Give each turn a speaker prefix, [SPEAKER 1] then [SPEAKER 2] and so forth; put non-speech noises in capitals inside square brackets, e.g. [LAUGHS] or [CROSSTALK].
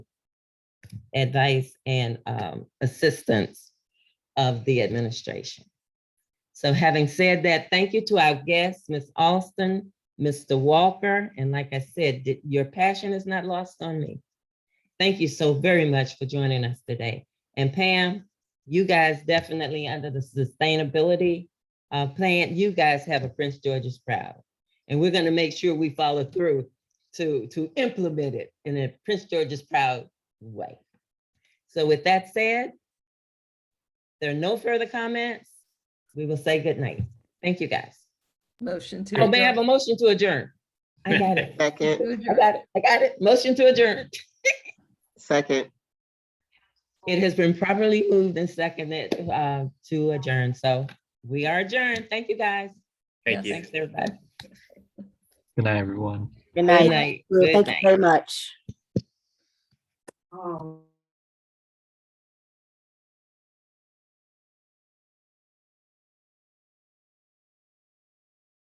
[SPEAKER 1] advice and um, assistance of the administration. So having said that, thank you to our guests, Ms. Alston, Mr. Walker, and like I said, th- your passion is not lost on me. Thank you so very much for joining us today. And Pam, you guys definitely under the sustainability uh, plan, you guys have a Prince George's Proud. And we're gonna make sure we follow through to, to implement it in a Prince George's Proud way. So with that said, there are no further comments. We will say good night. Thank you, guys.
[SPEAKER 2] Motion to.
[SPEAKER 1] Oh, may I have a motion to adjourn? I got [LAUGHS] it.
[SPEAKER 3] Second,
[SPEAKER 1] I got it. I got it. Motion to adjourn.
[SPEAKER 3] second,
[SPEAKER 1] It has been properly moved and seconded uh, to adjourn. So we are adjourned. Thank you, guys.
[SPEAKER 4] Thank you.
[SPEAKER 1] Thanks, everybody.
[SPEAKER 5] Good night, everyone.
[SPEAKER 6] Good
[SPEAKER 1] Good
[SPEAKER 6] night.
[SPEAKER 1] night. Good
[SPEAKER 6] Thank you
[SPEAKER 1] night.
[SPEAKER 6] very much.
[SPEAKER 2] adjourn.